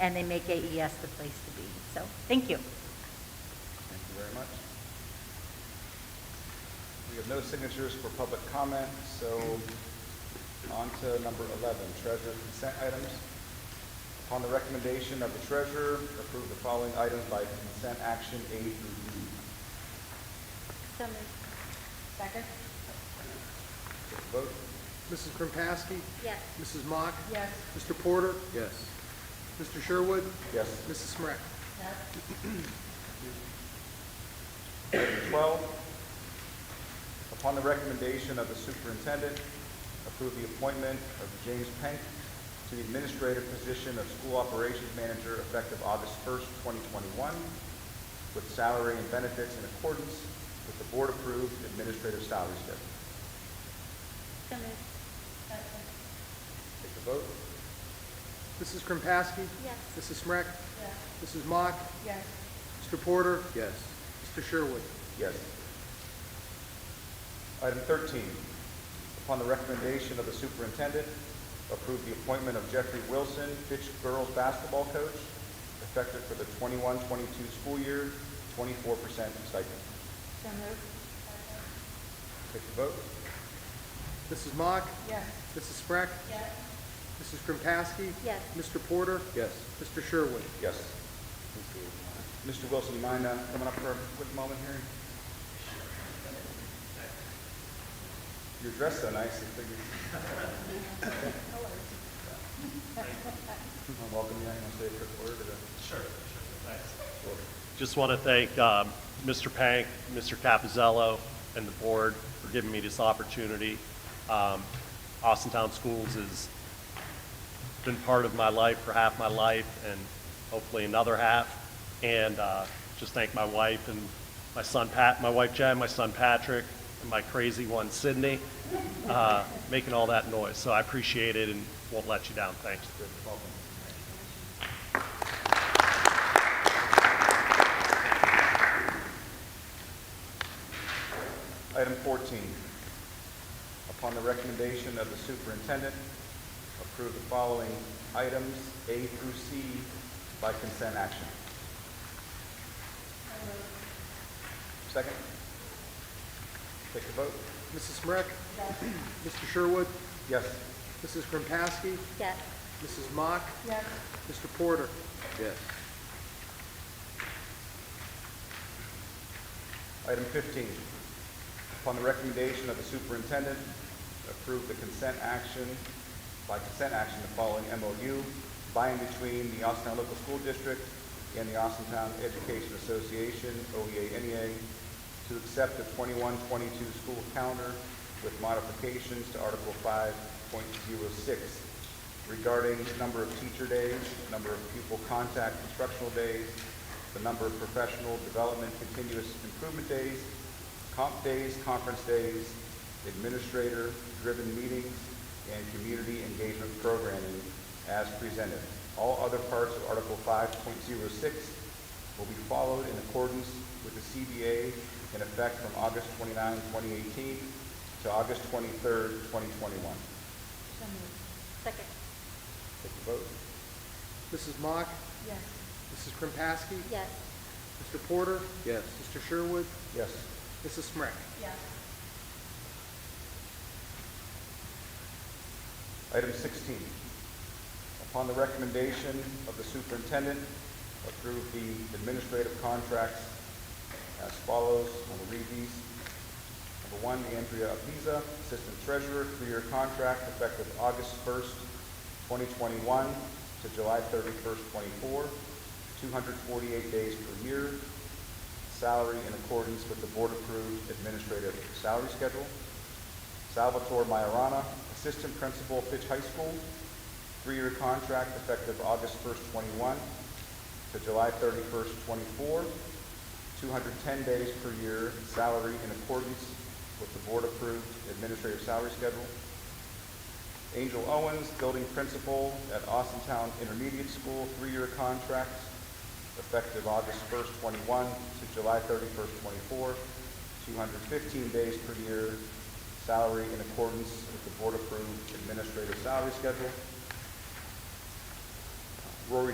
and they make AES the place to be. So, thank you. Thank you very much. We have no signatures for public comment, so on to number 11, treasurer consent items. Upon the recommendation of the treasurer, approve the following items by consent action A through D. So moved. Second? Take a Vote. Mrs. Kropaski? Yes. Mrs. Mock? Yes. Mr. Porter? yes, Mr. Sherwood? Yes. Mrs. Smrek? Item 12, upon the recommendation of the superintendent, approve the appointment of James Penk to the administrative position of school operations manager effective August 1st, 2021, with salary and benefits in accordance with the board-approved administrative salary schedule. So moved. Take the vote. Mrs. Kropaski? Yes. Mrs. Smrek? Mrs. Mock? Yes. Mr. Porter? yes, Mr. Sherwood? Yes. Item 13, upon the recommendation of the superintendent, approve the appointment of Jeffrey Wilson, Fitch girls basketball coach, effective for the 21-22 school year, 24% stipend. So moved. Take the vote. Mrs. Mock? Yes. Mrs. Smrek? Yes. Mrs. Kropaski? Yes. Mr. Porter? yes. Mr. Sherwood? Yes. Mr. Wilson, you mind uh, coming up for a quick moment here? You're dressed so nicely, figured. I'll Welcome you, I'm gonna say a quick word or the- Sure, sure, thanks. Just want to thank um, Mr. Pank, Mr. Capizello, and the board for giving me this opportunity. Um, Austintown Schools has been part of my life for half my life and hopefully another half. And uh, just thank my wife and my son Pat, my wife Jen, my son Patrick, and my crazy one Sydney, uh, making all that noise. So I appreciate it and won't let you down. Thanks. Item 14, upon the recommendation of the superintendent, approve the following items, A through C, by consent action. Second? Take the vote. Mrs. Smrek? Mr. Sherwood? Yes. Mrs. Kropaski? Yes. Mrs. Mock? Yes. Mr. Porter? Yes. Item 15, upon the recommendation of the superintendent, approve the consent action, by consent action, the following MOU by and between the Austintown Local School District and the Austintown Education Association, E OEA-NEA, to accept the 21-22 school calendar with modifications to Article 5.06 regarding number of teacher days, number of pupil contact instructional days, the number of professional development continuous improvement days, comp days, conference days, administrator-driven meetings, and community engagement programming as presented. All other parts of Article 5.06 will be followed in accordance with the CBA in effect from August 29, 2018 to August 23, 2021. So moved. Second? Take the vote. Mrs. Mock? Yes. Mrs. Kropaski? Yes. Mr. Porter? Yes. Mr. Sherwood? Yes. Mrs. Smrek? Yes. Item 16, upon the recommendation of the superintendent, approve the administrative contracts as follows. I'm going to read these. Number one, Andrea Apiza, Assistant Treasurer, three-year contract effective August 1st, 2021 to July 31st, 24, 248 days per year, salary in accordance with the board-approved administrative salary schedule. Salvatore Majorana, Assistant Principal, Fitch High School, three-year contract effective August 1st, 21 to July 31st, 24, 210 days per year, salary in accordance with the board-approved administrative salary schedule. Angel Owens, Building Principal at Austintown Intermediate School, three-year contract effective August 1st, 21 to July 31st, 24, 215 days per year, salary in accordance with the board-approved administrative salary schedule. Rory